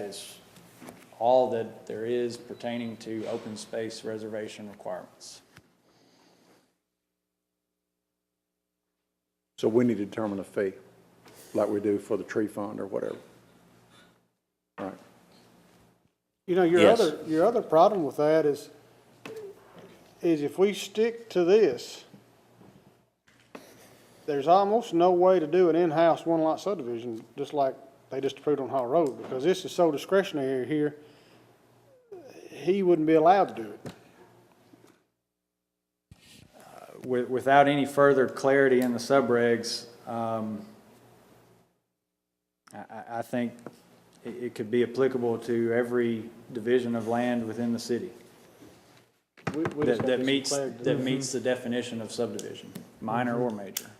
is all that there is pertaining to open space reservation requirements. So we need to determine a fee, like we do for the tree fund or whatever. Right. You know, your Yes. other, your other problem with that is, is if we stick to this, there's almost no way to do an in-house one-lot subdivision, just like they just approved on Hall Road, because this is so discretionary here, he wouldn't be allowed to do it. Wi- Without any further clarity in the subregs, um, I- I I think it it could be applicable to every division of land within the city We- we that just gotta that get some meets, clarity. that meets the definition of subdivision, minor or major.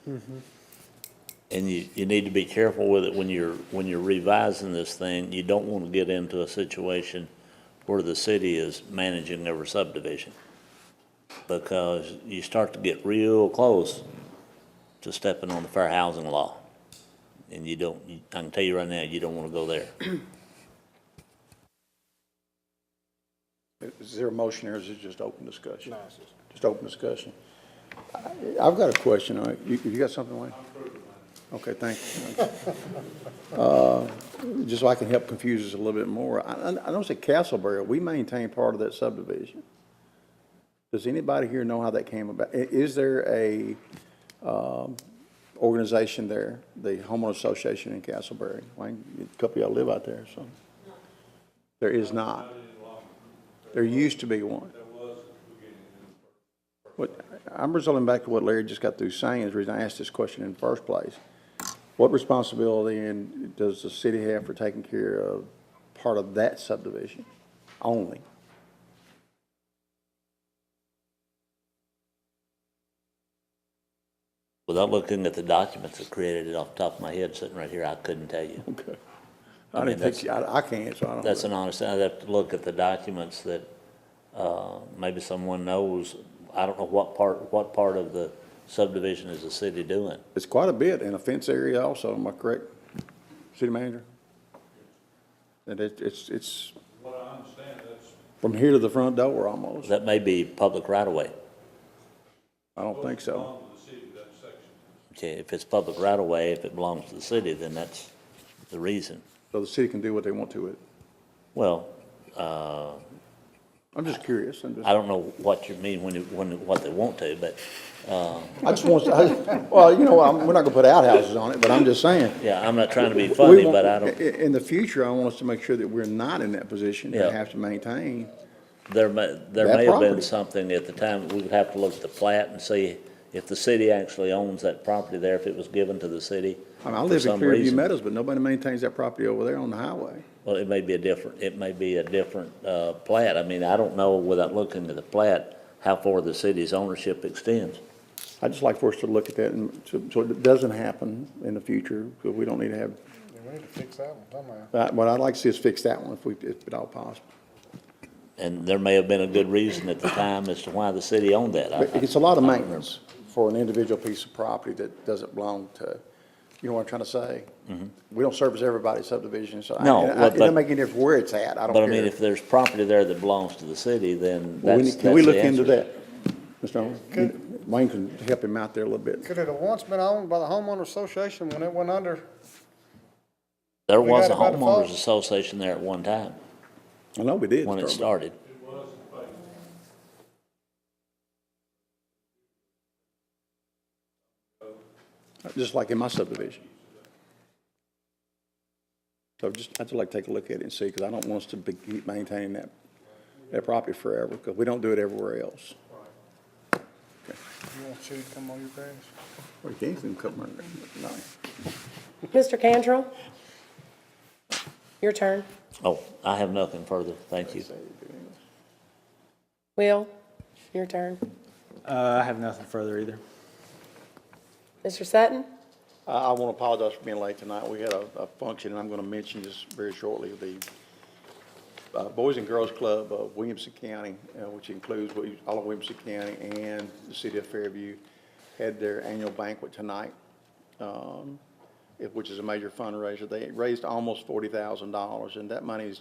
And you, you need to be careful with it when you're, when you're revising this thing. You don't want to get into a situation where the city is managing every subdivision. Because you start to get real close to stepping on the fair housing law. And you don't, you- I can tell you right now, you don't want to go there. Is there a motion or is it just open discussion? No, it's just- Just open discussion. I- I've got a question. all right. You, you got something, Wayne? Okay, thank you. Uh, Just so I can help confuse us a little bit more, I, I I noticed at Castleberry, we maintain part of that subdivision. Does anybody here know how that came about? I- is there a, um, organization there, the homeowner association in Castleberry? Wayne, a couple of y'all live out there, so. There is not. There used to be one. What, I'm resulting back to what Larry just got through saying, is the reason I asked this question in the first place. What responsibility and does the city have for taking care of part of that subdivision only? Without looking at the documents that created it off the top of my head, sitting right here, I couldn't tell you. Okay. I I mean, didn't think, I, I can't, so I don't. That's an honest, I'd have to look at the documents that, uh, maybe someone knows. I don't know what part, what part of the subdivision is the city doing. It's quite a bit in a fence area also, am I correct, city manager? And it, it's, it's What I understand, that's, from here to the front door almost. That may be public right of way. I don't think so. belongs to the city, that section. Okay, if it's public right of way, if it belongs to the city, then that's the reason. So the city can do what they want to it. Well, uh, I'm just curious. I'm just. I don't know what you mean when, you- when, what they want to, but, I just want to, well, you know, I'm- we're not gonna put outhouses on it, but I'm just saying. yeah, I'm not trying to be We funny, want- but I don't, i- i- In the future, I want us to make sure that we're not in that position Yeah. to have to maintain. There may, there That may have been property. something at the time, we would have to look at the plat and see if the city actually owns that property there, if it was given to the city. I mean, I for live in some Clearview reason. Meadows, but nobody maintains that property over there on the highway. Well, it may be a different, it may be a different, uh, plat. I mean, I don't know without looking at the plat, how far the city's ownership extends. I'd just like for us to look at that and so, so it doesn't happen in the future, because we don't need to have, Yeah, we need to fix that one somehow. but what I'd like to see is fix that one if we, if at all possible. And there may have been a good reason at the time as to why the city owned that. I- But It's a lot of maintenance for an individual piece of property that doesn't belong to, you know what I'm trying to say? We don't service everybody's subdivision, so I- Mm-hmm. No, and I- but- it doesn't make any difference where it's at, I don't care. But I mean, if there's property there that belongs to the city, then Well, we that's, need- Can we that's the look into answer. that, Mr. Owens? Wayne can help him out there a little bit. Could it have once been owned by the homeowner association when it went under? There We was a got it by default. homeowners association there at one time, I know we did. when it start, but- started. Just like in my subdivision. So just, I'd just like to take a look at it and see, because I don't want us to be, keep maintaining that, that property forever, because we don't do it everywhere else. You want to chew, come on your grass? Well, you can't even come around there. No. Mr. Cantrell? Your turn. Oh, I have nothing further, thank you. Will, your turn. Uh, I have nothing further either. Mr. Sutton? I, I want to apologize for being late tonight. We had a, a function, and I'm going to mention just very shortly, the uh, Boys and Girls Club of Williamson County, uh, which includes Wi- all of Williamson County and the city of Fairview, had their annual banquet tonight, um, it- which is a major fundraiser. They raised almost forty thousand dollars, and that money is